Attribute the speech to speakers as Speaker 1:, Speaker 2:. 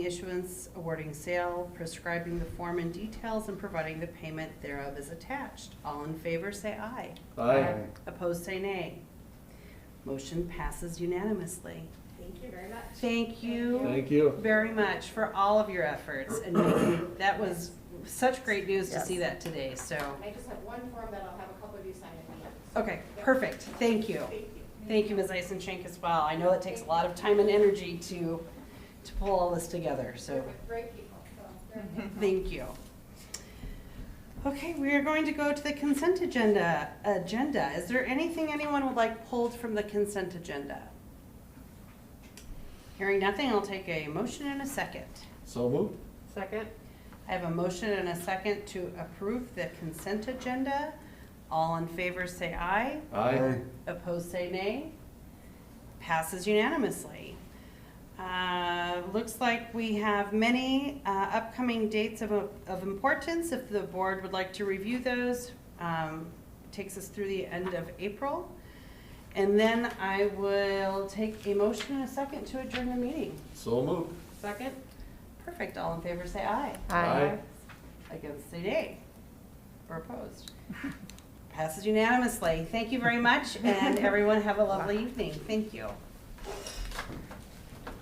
Speaker 1: issuance, awarding sale, prescribing the form and details, and providing the payment thereof is attached. All in favor, say aye.
Speaker 2: Aye.
Speaker 1: Opposed, say nay. Motion passes unanimously.
Speaker 3: Thank you very much.
Speaker 1: Thank you
Speaker 2: Thank you.
Speaker 1: very much for all of your efforts, and making- that was such great news to see
Speaker 4: Yes.
Speaker 1: that today, so.
Speaker 3: I just have one form that I'll have a couple of you sign at the end.
Speaker 1: Okay, perfect, thank you.
Speaker 3: Thank you.
Speaker 1: Thank you, Ms. Eisenchenk, as well. I know it takes a lot of time and energy to, to pull all this together, so
Speaker 3: They're Great people, so they're
Speaker 1: Mm-hmm. thank you. Okay, we are going to go to the consent agenda. Agenda, is there anything anyone would like pulled from the consent agenda? Hearing nothing, I'll take a motion and a second.
Speaker 2: So moved.
Speaker 5: Second?
Speaker 1: I have a motion and a second to approve the consent agenda. All in favor, say aye.
Speaker 2: Aye.
Speaker 1: Opposed, say nay. Passes unanimously. Uh, Looks like we have many uh, upcoming dates of of importance. If the board would like to review those, um, takes us through the end of April. And then I will take a motion and a second to adjourn the meeting.
Speaker 2: So moved.
Speaker 5: Second?
Speaker 1: Perfect, all in favor, say aye.
Speaker 2: Aye.
Speaker 1: Against, say nay. Or opposed. Passes unanimously. Thank you very much, and everyone have a lovely evening. Thank you.